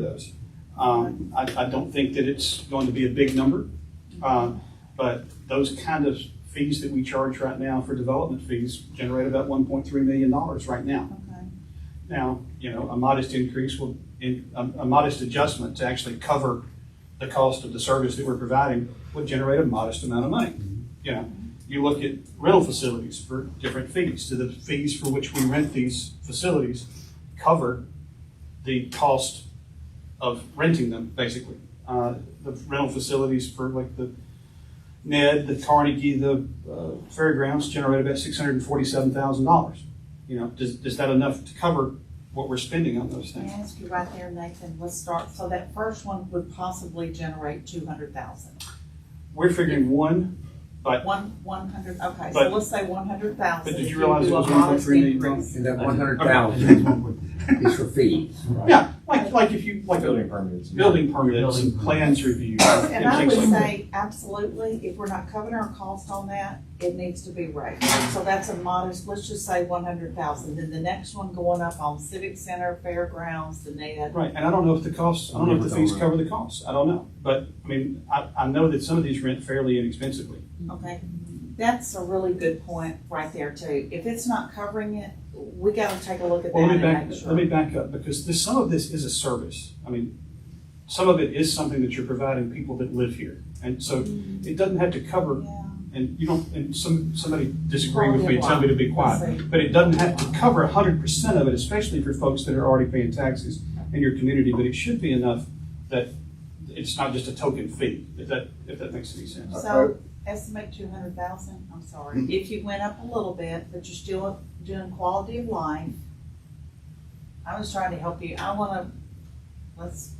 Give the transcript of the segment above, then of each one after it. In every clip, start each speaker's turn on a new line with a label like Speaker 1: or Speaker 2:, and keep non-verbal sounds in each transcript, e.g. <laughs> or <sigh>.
Speaker 1: those. Um, I, I don't think that it's going to be a big number, um, but those kind of fees that we charge right now for development fees generate about one point three million dollars right now.
Speaker 2: Okay.
Speaker 1: Now, you know, a modest increase will, in, a, a modest adjustment to actually cover the cost of the service that we're providing would generate a modest amount of money. You know, you look at rental facilities for different fees, do the fees for which we rent these facilities cover the cost of renting them, basically? Uh, the rental facilities for like the Ned, the Carnegie, the uh, fairgrounds generate about six hundred and forty-seven thousand dollars. You know, does, is that enough to cover what we're spending on those
Speaker 2: Can
Speaker 1: things?
Speaker 2: I ask you right there, Nathan, let's start, so that first one would possibly generate two hundred thousand.
Speaker 1: We're figuring one, but,
Speaker 2: One, one hundred, okay, so
Speaker 1: But-
Speaker 2: let's say one hundred thousand.
Speaker 1: but did you realize it was one point three million dollars?
Speaker 3: And that
Speaker 4: Okay.
Speaker 3: one
Speaker 1: <laughs>
Speaker 3: hundred thousand is for fees.
Speaker 1: Yeah, like, like if you, like
Speaker 4: Building permits.
Speaker 1: building permits and
Speaker 4: Building.
Speaker 1: plans reviews and
Speaker 2: And I
Speaker 1: things
Speaker 2: would
Speaker 1: like that.
Speaker 2: say, absolutely, if we're not covering our cost on that, it needs to be raised. So that's a modest, let's just say one hundred thousand, then the next one going up on civic center, fairgrounds, the net.
Speaker 1: Right, and I don't know if the costs, I don't know if the fees cover the costs, I don't know. But, I mean, I, I know that some of these rent fairly inexpensively.
Speaker 2: Okay, that's a really good point right there too. If it's not covering it, we gotta take a look at that
Speaker 1: Well, let
Speaker 2: and
Speaker 1: me back,
Speaker 2: make sure.
Speaker 1: let me back up, because this, some of this is a service. I mean, some of it is something that you're providing people that live here. And so Mm-hmm. it doesn't have to cover,
Speaker 2: Yeah.
Speaker 1: and you don't, and some, somebody disagree with me and
Speaker 2: Quality of
Speaker 1: tell me to be
Speaker 2: life.
Speaker 1: quiet.
Speaker 2: Let's see.
Speaker 1: But it doesn't have to cover hundred percent of it, especially for folks that are already paying taxes in your community. But it should be enough that it's not just a token fee, if that, if that makes any sense.
Speaker 2: So estimate two hundred thousand, I'm sorry,
Speaker 5: Mm-hmm.
Speaker 2: if you went up a little bit, but you're still doing quality of life. I was trying to help you, I wanna, let's.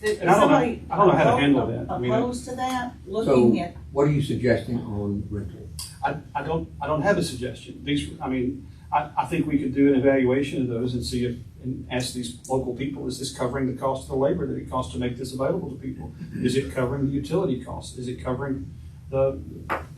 Speaker 2: If
Speaker 1: And I don't know-
Speaker 2: somebody
Speaker 1: I don't know how to handle that. I mean, I-
Speaker 2: Opposed to that,
Speaker 3: So
Speaker 2: looking at,
Speaker 3: what are you suggesting on rental?
Speaker 1: I, I don't, I don't have a suggestion. These, I mean, I, I think we could do an evaluation of those and see if, and ask these local people, is this covering the cost of the labor that it costs to make this available to people? Is it covering the utility costs? Is it covering the,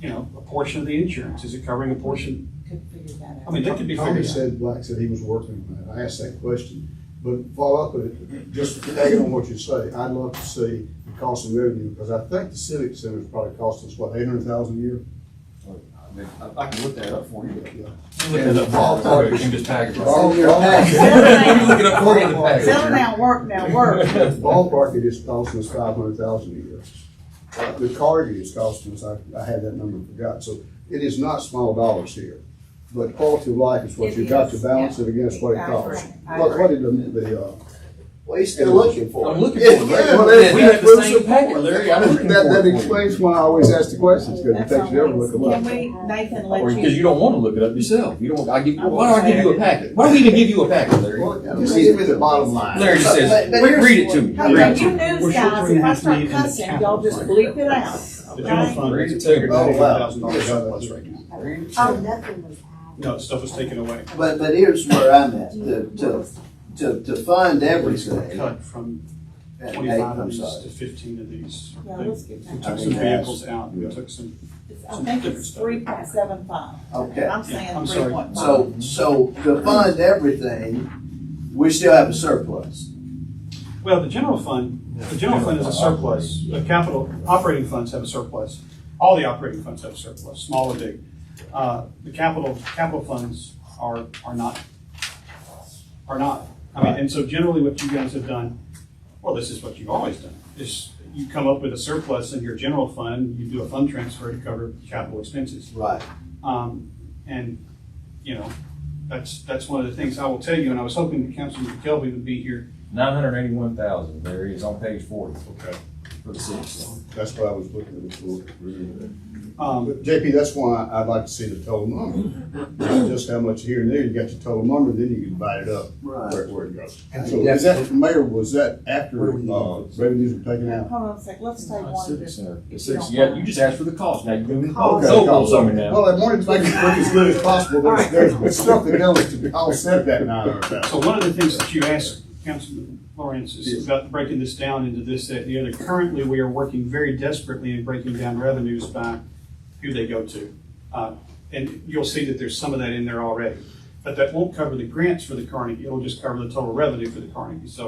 Speaker 1: you know, a portion of the insurance? Is it covering a portion?
Speaker 2: could figure that
Speaker 1: I
Speaker 2: out.
Speaker 1: mean,
Speaker 2: <laughs>
Speaker 1: that could be
Speaker 5: Tommy
Speaker 1: figured out.
Speaker 5: said, Black said he was working on that. I asked that question. But follow up with it, just tagging on what you say, I'd love to see the cost and revenue, because I think the civic center's probably costing us, what, eight hundred thousand a year?
Speaker 4: I mean, I- I can look that up for you.
Speaker 3: And the
Speaker 4: Or you can just tag
Speaker 1: <laughs>
Speaker 2: <laughs>
Speaker 4: it.
Speaker 2: Settle
Speaker 3: Looking
Speaker 2: down.
Speaker 3: up for you to pay.
Speaker 2: Settle down, work now,
Speaker 5: <laughs>
Speaker 2: work.
Speaker 5: Ballpark, it is costing us five hundred thousand a year. Uh, The Carnegie is costing us, I, I had that number forgot, so it is not small dollars here. But quality of life is what
Speaker 2: It
Speaker 5: you've got to
Speaker 2: is,
Speaker 5: balance
Speaker 2: yeah.
Speaker 5: it against what it
Speaker 2: I
Speaker 5: costs.
Speaker 2: agree, I
Speaker 5: What, what
Speaker 2: agree.
Speaker 5: did the, the, uh,
Speaker 6: Well, he's still looking for it.
Speaker 3: I'm looking for it.
Speaker 5: Yeah,
Speaker 3: Well,
Speaker 5: yeah,
Speaker 3: we
Speaker 5: yeah,
Speaker 3: have
Speaker 5: we'll
Speaker 3: the same
Speaker 5: support
Speaker 3: packet, Larry. I'm looking
Speaker 5: That,
Speaker 3: for it
Speaker 5: that
Speaker 3: for you.
Speaker 5: explains why I always ask the questions, because it
Speaker 2: That's all.
Speaker 5: takes you ever look them
Speaker 2: Can
Speaker 5: up.
Speaker 2: we, Nathan,
Speaker 4: Or,
Speaker 2: let
Speaker 4: because
Speaker 2: you,
Speaker 4: you don't wanna look it up yourself. You don't, I give, why do I give you a packet? Why do we even give you a packet, Larry?
Speaker 5: Just give me the bottom line.
Speaker 4: Larry just says,
Speaker 6: But- but
Speaker 4: "Re-
Speaker 6: here's-
Speaker 4: read it to me.
Speaker 2: how
Speaker 4: Read
Speaker 2: about
Speaker 4: it to
Speaker 2: you
Speaker 4: me."
Speaker 1: We're
Speaker 2: news
Speaker 1: short
Speaker 2: guys,
Speaker 1: three and
Speaker 2: if
Speaker 1: a
Speaker 2: I
Speaker 1: half
Speaker 2: start
Speaker 1: million in the
Speaker 2: cussing,
Speaker 1: capital
Speaker 2: y'all just
Speaker 1: fund.
Speaker 2: bleep it out,
Speaker 1: The general
Speaker 2: okay?
Speaker 1: fund
Speaker 4: Raise
Speaker 1: is
Speaker 4: it to
Speaker 1: taking
Speaker 4: her.
Speaker 6: Oh, wow.
Speaker 1: thousand dollars out of us right now.
Speaker 4: Read it to
Speaker 7: Oh,
Speaker 4: me.
Speaker 7: nothing was added.
Speaker 1: No, stuff was taken away.
Speaker 6: But, but here's where I'm at, to, to, to, to fund everything.
Speaker 1: Cut from
Speaker 6: Hey,
Speaker 1: twenty-five of
Speaker 6: I'm
Speaker 1: these
Speaker 6: sorry.
Speaker 1: to fifteen of these.
Speaker 2: Yeah, let's get
Speaker 1: We
Speaker 2: that.
Speaker 1: took some vehicles out, we took some
Speaker 2: It's- I think it's three point seven five.
Speaker 6: Okay.
Speaker 2: I'm
Speaker 1: Yeah,
Speaker 2: saying
Speaker 1: I'm
Speaker 2: three
Speaker 1: sorry.
Speaker 2: point five.
Speaker 6: So, so to fund everything, we still have a surplus.
Speaker 1: Well, the general fund, the general fund is a surplus, the capital, operating funds have a surplus. All the operating funds have a surplus, small or big. Uh, The capital, capital funds are, are not, are not. I mean, and so generally what you guys have done, well, this is what you've always done, is you come up with a surplus in your general fund, you do a fund transfer to cover capital expenses.
Speaker 6: Right.
Speaker 1: Um, and, you know, that's, that's one of the things I will tell you, and I was hoping that Councilman Kelby would be here
Speaker 4: Nine hundred eighty-one thousand, Larry, is on page forty
Speaker 5: Okay,
Speaker 4: for the city. center.
Speaker 5: that's what I was looking at before.
Speaker 1: Um,
Speaker 5: But JP, that's why I'd like to see the total number, not just how much here and there, you got your total number, then you can divide it up
Speaker 6: Right.
Speaker 5: where, where it goes.
Speaker 3: And
Speaker 5: So
Speaker 3: the
Speaker 5: is that, Mayor, was that after,
Speaker 3: Where we-
Speaker 5: uh, revenues were taken out?
Speaker 2: Hold on a sec, let's take
Speaker 4: Uh,
Speaker 2: one.
Speaker 4: civic
Speaker 2: just-
Speaker 4: center.
Speaker 2: if you
Speaker 4: Six-
Speaker 2: don't
Speaker 4: yeah,
Speaker 2: mind.
Speaker 4: you just asked for the cost, now you're doing the
Speaker 2: Cost.
Speaker 4: cost.
Speaker 5: Okay.
Speaker 4: Total on me now.
Speaker 5: Well, I wanted to make it look as good as possible, but there's, there's something else to be offset that nine hundred thousand.
Speaker 1: So one of the things that you asked, Councilman Lawrence, is about breaking this down into this, that, and the other. Currently, we are working very desperately in breaking down revenues by who they go to. Uh, And you'll see that there's some of that in there already. But that won't cover the grants for the Carnegie, it'll just cover the total revenue for the Carnegie. So